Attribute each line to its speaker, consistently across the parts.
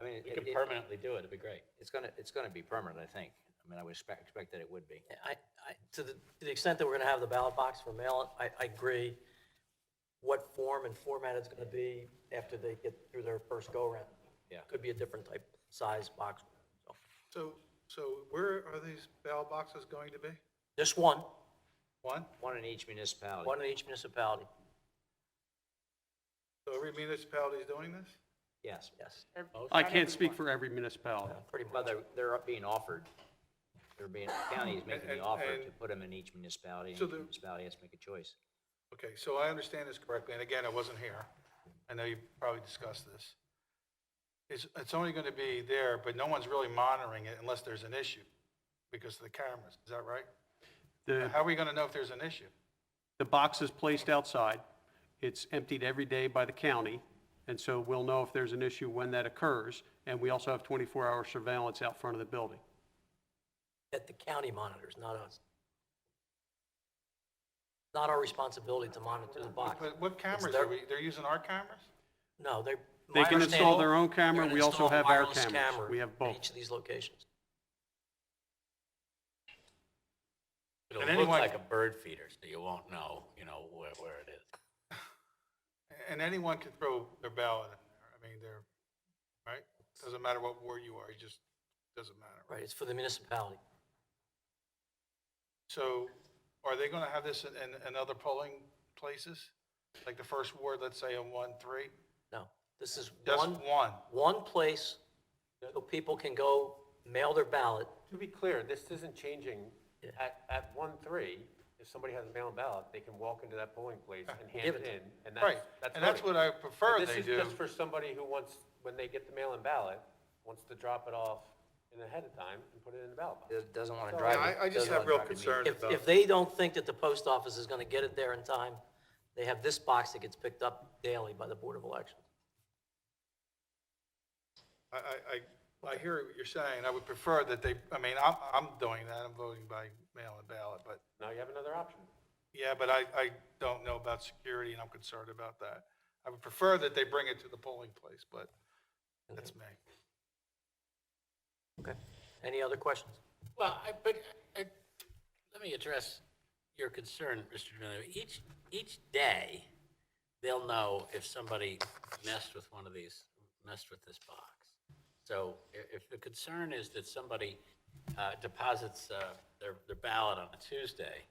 Speaker 1: it-
Speaker 2: We could
Speaker 1: it- it-
Speaker 2: permanently do it, it'd be great.
Speaker 1: It's gonna, it's gonna be permanent, I think. I mean, I would expect, expect that it would be.
Speaker 3: I, I, to the, to the extent that we're gonna have the ballot box for mail, I, I agree. What form and format it's gonna be after they get through their first go-around.
Speaker 1: Yeah.
Speaker 3: Could be a different type, size box. So,
Speaker 4: So, so where are these ballot boxes going to be?
Speaker 3: Just one,
Speaker 4: One?
Speaker 1: One in each municipality.
Speaker 3: one in each municipality,
Speaker 4: So every municipality is doing this?
Speaker 1: Yes.
Speaker 3: yes,
Speaker 5: I can't speak for every municipality.
Speaker 3: pretty much.
Speaker 1: Well, they're, they're being offered, they're being, the county is making the
Speaker 4: And-
Speaker 1: offer to
Speaker 4: and-
Speaker 1: put them in each municipality,
Speaker 4: So
Speaker 1: and each
Speaker 4: the-
Speaker 1: municipality has to make a choice.
Speaker 4: Okay, so I understand this correctly, and again, I wasn't here. I know you probably discussed this. It's, it's only going to be there, but no one's really monitoring it unless there's an issue because of the cameras. Is that right?
Speaker 5: The,
Speaker 4: How are we going to know if there's an issue?
Speaker 5: the box is placed outside. It's emptied every day by the county, and so we'll know if there's an issue when that occurs. And we also have 24-hour surveillance out front of the building.
Speaker 3: That the county monitors, not us. Not our responsibility to monitor the box.
Speaker 4: But what cameras
Speaker 3: their-
Speaker 4: are we, they're using our cameras?
Speaker 3: No, they.
Speaker 5: They
Speaker 3: my
Speaker 5: can install their own
Speaker 3: understanding,
Speaker 5: camera.
Speaker 3: they're
Speaker 5: We
Speaker 3: gonna
Speaker 5: also
Speaker 3: install
Speaker 5: have our
Speaker 3: wireless
Speaker 5: cameras.
Speaker 3: camera
Speaker 5: We have
Speaker 3: at
Speaker 5: both.
Speaker 3: Each of these locations.
Speaker 6: It'll
Speaker 4: And
Speaker 6: look
Speaker 4: anyone-
Speaker 6: like a bird feeder, so you won't know, you know, where, where it is.
Speaker 4: And anyone can throw their ballot in there. I mean, they're, right? Doesn't matter what ward you are, it just doesn't matter. right?
Speaker 3: Right, it's for the municipality.
Speaker 4: So are they going to have this in, in- in other polling places? Like the first ward, let's say on one, three?
Speaker 3: No, this is
Speaker 4: Just
Speaker 3: one,
Speaker 4: one.
Speaker 3: one place so people can go mail their ballot.
Speaker 7: To be clear, this isn't changing. At, at one-three, if somebody has a mail-in ballot, they can walk into that polling place and hand
Speaker 3: Give
Speaker 7: it
Speaker 3: it.
Speaker 7: in, and
Speaker 4: Right.
Speaker 7: that's, that's
Speaker 4: And that's
Speaker 7: voting.
Speaker 4: what I prefer
Speaker 7: This
Speaker 4: they
Speaker 7: is
Speaker 4: do.
Speaker 7: just for somebody who wants, when they get the mail-in ballot, wants to drop it off in ahead of time and put it in the ballot box.
Speaker 1: It doesn't want to
Speaker 7: So,
Speaker 1: drive.
Speaker 8: I,
Speaker 1: it-
Speaker 8: I just
Speaker 1: doesn't
Speaker 8: have
Speaker 1: wanna
Speaker 8: real
Speaker 1: drive it.
Speaker 8: concerns
Speaker 3: If,
Speaker 8: about,
Speaker 3: if they don't think that the post office is gonna get it there in time, they have this box that gets picked up daily by the Board of Elections.
Speaker 4: I, I, I, I hear what you're saying. I would prefer that they, I mean, I'm, I'm doing that. I'm voting by mail and ballot, but,
Speaker 7: Now you have another option.
Speaker 4: yeah, but I, I don't know about security and I'm concerned about that. I would prefer that they bring it to the polling place, but that's me.
Speaker 3: Okay. Any other questions?
Speaker 6: Well, I, but, I, let me address your concern, Mr. Donovan. Each, each day, they'll know if somebody messed with one of these, messed with this box. So i- if the concern is that somebody uh, deposits uh, their, their ballot on a Tuesday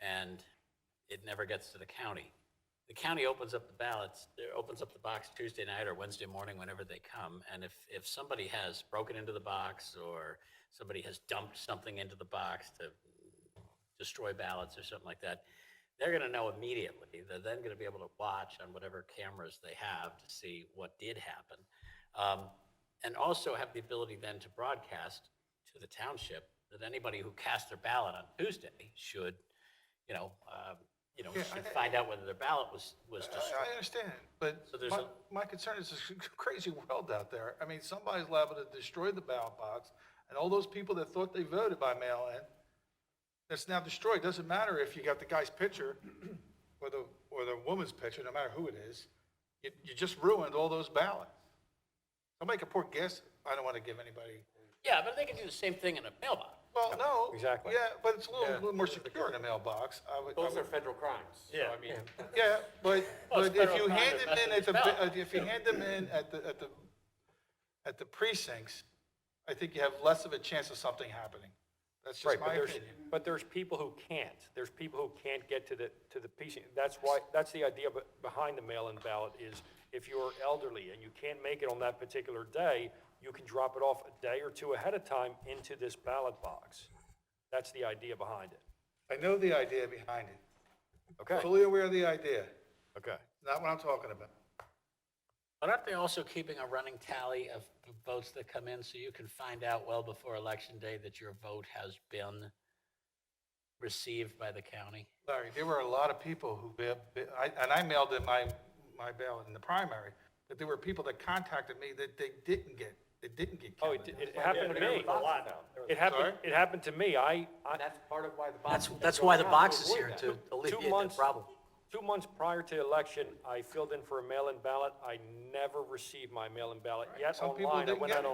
Speaker 6: and it never gets to the county, the county opens up the ballots, there- opens up the box Tuesday night or Wednesday morning, whenever they come. And if, if somebody has broken into the box or somebody has dumped something into the box to destroy ballots or something like that, they're going to know immediately. They're then going to be able to watch on whatever cameras they have to see what did happen. Um, and also have the ability then to broadcast to the township that anybody who cast their ballot on Tuesday should, you know, um, you know,
Speaker 4: Yeah,
Speaker 6: should
Speaker 4: I- Uh,
Speaker 6: find out whether their ballot was, was destroyed.
Speaker 4: I, I understand, but
Speaker 6: So there's
Speaker 4: my,
Speaker 6: a-
Speaker 4: my concern is this crazy world out there. I mean, somebody's liable to destroy the ballot box, and all those people that thought they voted by mail-in, that's now destroyed. Doesn't matter if you got the guy's picture or the, or the woman's picture, no matter who it is. You, you just ruined all those ballots. Somebody could pour gas, I don't want to give anybody,
Speaker 6: Yeah, but they can do the same thing in a mailbox.
Speaker 4: well, no.
Speaker 7: Exactly.
Speaker 4: Yeah, but it's a little, little more secure in a mailbox. I would- I
Speaker 7: Those
Speaker 4: would-
Speaker 7: are federal crimes, so I mean,
Speaker 4: Yeah, but,
Speaker 6: Well,
Speaker 4: but
Speaker 6: it's
Speaker 4: if
Speaker 6: federal
Speaker 4: you
Speaker 6: crime
Speaker 4: hand
Speaker 6: to
Speaker 4: them in
Speaker 6: mess
Speaker 4: at
Speaker 6: with the
Speaker 4: the,
Speaker 6: ballot.
Speaker 4: if you hand them in at the, at the, at the precincts, I think you have less of a chance of something happening. That's just
Speaker 9: Right,
Speaker 4: my
Speaker 9: but there's,
Speaker 4: opinion.
Speaker 9: but there's people who can't. There's people who can't get to the, to the PC. That's why, that's the idea be- behind the mail-in ballot is if you're elderly and you can't make it on that particular day, you can drop it off a day or two ahead of time into this ballot box. That's the idea behind it.
Speaker 4: I know the idea behind it.
Speaker 9: Okay,
Speaker 4: Fully aware of the idea.
Speaker 9: okay.
Speaker 4: Not what I'm talking about.
Speaker 6: But aren't they also keeping a running tally of the votes that come in so you can find out well before election day that your vote has been received by the county?
Speaker 4: Larry, there were a lot of people who, ba- ba- I- and I mailed in my, my ballot in the primary, but there were people that contacted me that they didn't get, they didn't get
Speaker 9: Oh, it,
Speaker 4: counted.
Speaker 9: it happened to me. It happened, it happened to me. I, I,
Speaker 7: that's part of why the box.
Speaker 3: That's,
Speaker 7: is
Speaker 3: that's
Speaker 7: going
Speaker 3: why the
Speaker 7: around
Speaker 3: box is
Speaker 7: avoid
Speaker 3: here
Speaker 7: that.
Speaker 3: to
Speaker 9: two
Speaker 3: alleviate that
Speaker 9: months.
Speaker 3: problem.
Speaker 9: Two months prior to the election, I filled in for a mail-in ballot. I never received my mail-in ballot. Yet
Speaker 4: Some people
Speaker 9: online, I
Speaker 4: didn't
Speaker 9: went
Speaker 4: get
Speaker 9: out
Speaker 4: it.